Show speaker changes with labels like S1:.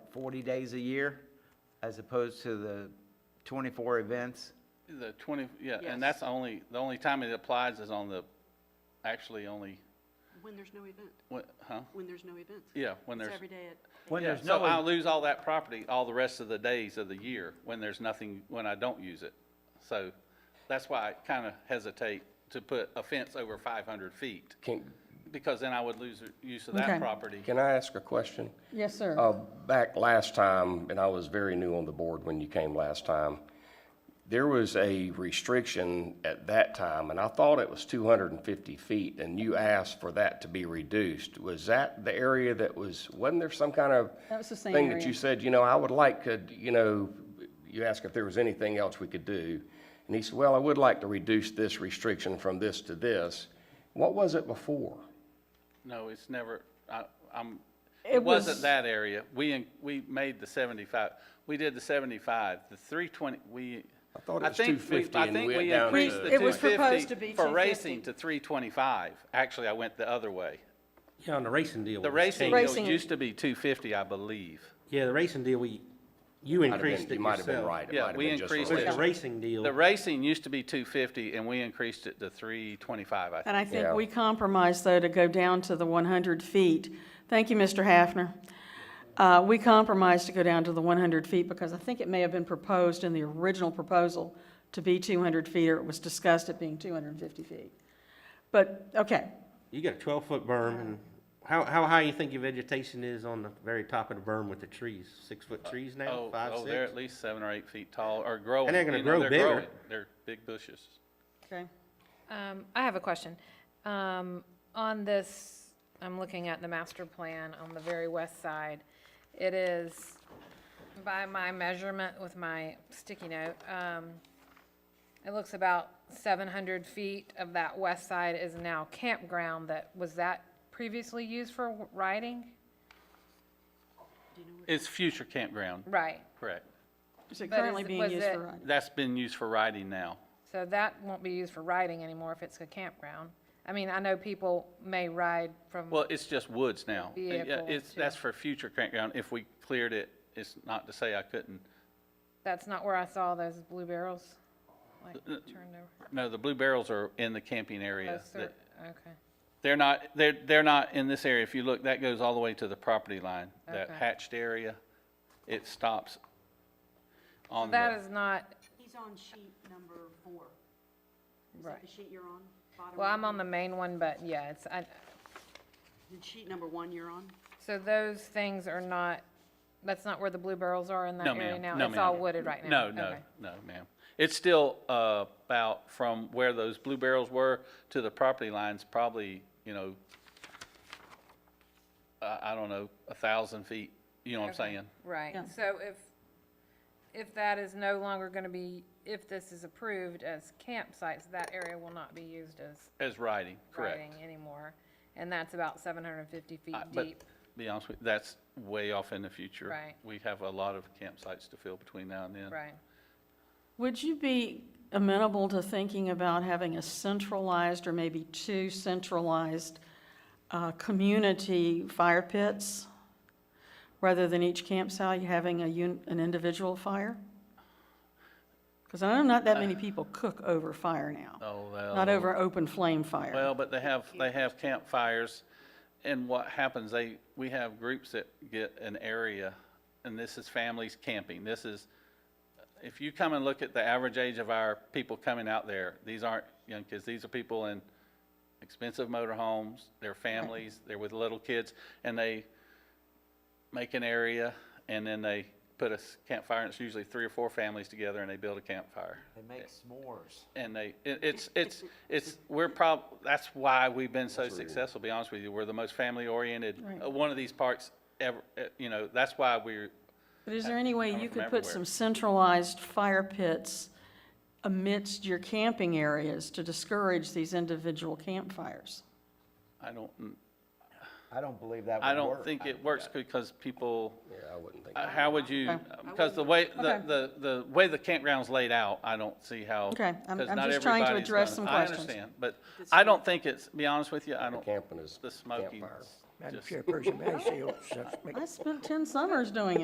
S1: 40 days a year as opposed to the 24 events?
S2: The twenty, yeah,
S3: Yes.
S2: and that's the only, the only time it applies is on the, actually only,
S3: When there's no event,
S2: what, huh?
S3: when there's no event.
S2: Yeah, when
S3: It's
S2: there's.
S3: every day at.
S1: When
S2: Yeah,
S1: there's
S2: So I
S1: no,
S2: lose all that property all the rest of the days of the year when there's nothing, when I don't use it. So that's why I kind of hesitate to put a fence over five hundred feet,
S4: Can,
S2: because then I would lose use of
S5: Okay.
S2: that property.
S4: can I ask a question?
S5: Yes, sir.
S4: Uh, back last time, and I was very new on the board when you came last time, there was a restriction at that time, and I thought it was two hundred and fifty feet, and you asked for that to be reduced. Was that the area that was, wasn't there some kind of
S5: That was the same
S4: Thing that
S5: area.
S4: you said, you know, I would like, could, you know, you asked if there was anything else we could do. And he said, well, I would like to reduce this restriction from this to this. What was it before?
S2: No, it's never, I, I'm,
S5: It
S2: it wasn't
S5: was-
S2: that area. We, in- we made the seventy-five, we did the seventy-five, the three twenty, we.
S4: I thought it was
S2: think we-
S4: 250
S2: I
S4: and
S2: think
S4: we went down
S2: increased
S4: to-
S2: the
S5: It was proposed
S2: 250
S5: to be
S2: For racing
S5: 250.
S2: to three twenty-five. Actually, I went the other way.
S6: Yeah, on the racing deal.
S2: The
S6: was
S2: racing
S6: changed.
S2: deal
S5: Racing-
S2: used to be two fifty, I believe.
S6: Yeah, the racing deal, we, you
S4: Might have been-
S6: increased it
S4: You might have been
S6: yourself.
S4: right. It
S2: Yeah,
S4: might have
S2: we
S4: been just
S2: increased
S4: a
S6: But the
S4: little-
S6: racing deal,
S2: The racing used to be two fifty, and we increased it to three twenty-five, I think.
S5: And I think
S4: Yeah.
S5: we compromised, though, to go down to the 100 feet. Thank you, Mr. Hafner. Uh, We compromised to go down to the 100 feet because I think it may have been proposed in the original proposal to be 200 feet, or it was discussed at being 250 feet. But, okay,
S6: you got a twelve-foot berm, and how, how high you think your vegetation is on the very top of the berm with the trees? Six-foot trees now,
S2: Oh,
S6: five,
S2: oh, they're
S6: six?
S2: at least seven or eight feet tall, or growing.
S6: And they're gonna
S2: you know,
S6: grow
S2: they're
S6: bigger.
S2: growing. They're big bushes.
S5: okay.
S7: Um, I have a question. Um, on this, I'm looking at the master plan on the very west side. It is, by my measurement with my sticky note, um, it looks about seven hundred feet of that west side is now campground that, was that previously used for riding?
S2: It's future campground,
S7: Right,
S2: correct.
S5: Is it
S7: But is-
S5: currently being
S7: was
S5: used for
S7: it-
S5: riding?
S2: That's been used for riding now.
S7: so that won't be used for riding anymore if it's a campground. I mean, I know people may ride from.
S2: Well, it's just woods now. And, yeah,
S7: Vehicle
S2: It's,
S7: to-
S2: that's for future campground. If we cleared it, it's not to say I couldn't.
S7: That's not where I saw those blue barrels, like,
S2: Uh,
S7: turned over.
S2: No, the blue barrels are in the camping area.
S7: Those are- Okay,
S2: They're not, they're, they're not in this area. If you look, that goes all the way to the property line, that
S7: Okay.
S2: hatched area. It stops on the.
S7: that is not,
S3: He's on sheet number four. Is that
S7: Right.
S3: the sheet you're on? Bottom
S7: well, I'm
S3: right
S7: on the main one, but yeah, it's, I,
S3: hand? The sheet number one you're on?
S7: so those things are not, that's not where the blue barrels are in that
S2: No,
S7: area
S2: ma'am.
S7: now?
S2: No,
S7: It's all
S2: ma'am.
S7: wooded right
S2: No,
S7: now?
S2: no,
S7: Okay.
S2: no, ma'am. It's still uh, about from where those blue barrels were to the property lines, probably, you know, I, I don't know, a thousand feet, you know what I'm
S7: Okay.
S2: saying?
S7: Right,
S5: Yeah.
S7: so if, if that is no longer gonna be, if this is approved as campsites, that area will not be used as
S2: As riding, correct.
S7: riding anymore? And that's about seven hundred and fifty feet
S2: I- But
S7: deep?
S2: be honest with you, that's way off in the future.
S7: Right.
S2: We have a lot of campsites to fill between now and then.
S7: Right,
S5: Would you be amenable to thinking about having a centralized or maybe two centralized uh, community fire pits? Rather than each campsite having a un, an individual fire? Because I know not that many people cook over fire now,
S2: Oh, well.
S5: not over open flame fire.
S2: Well, but they have, they have campfires, and what happens, they, we have groups that get an area, and this is families camping, this is, if you come and look at the average age of our people coming out there, these aren't young kids, these are people in expensive motorhomes, their families, they're with little kids, and they make an area, and then they put a s- campfire, and it's usually three or four families together, and they build a campfire.
S1: They make s'mores.
S2: And they, it, it's, it's, it's, we're prob, that's why we've been so successful, to be honest with you. We're the most family-oriented,
S5: Right.
S2: uh, one of these parks ever, uh, you know, that's why we're,
S5: But is there any way
S2: coming
S5: you
S2: from
S5: could put
S2: everywhere.
S5: some centralized fire pits amidst your camping areas to discourage these individual campfires?
S2: I don't,
S1: I don't believe that would work.
S2: I don't think it works because people,
S4: Yeah, I wouldn't think.
S2: uh, how would you, because the way, the,
S5: Okay.
S2: the, the way the campground's laid out, I don't see how.
S5: Okay, I'm-
S2: 'cause
S5: I'm
S2: not
S5: just trying to
S2: everybody's gonna-
S5: address some
S2: I
S5: questions.
S2: understand, but I don't think it's, be honest with you, I don't,
S4: Camping is
S2: the smoking.
S4: campfire.
S8: Madam
S2: just-
S8: Chairperson, may I say, oh, such- make-
S5: I spent 10 summers doing it.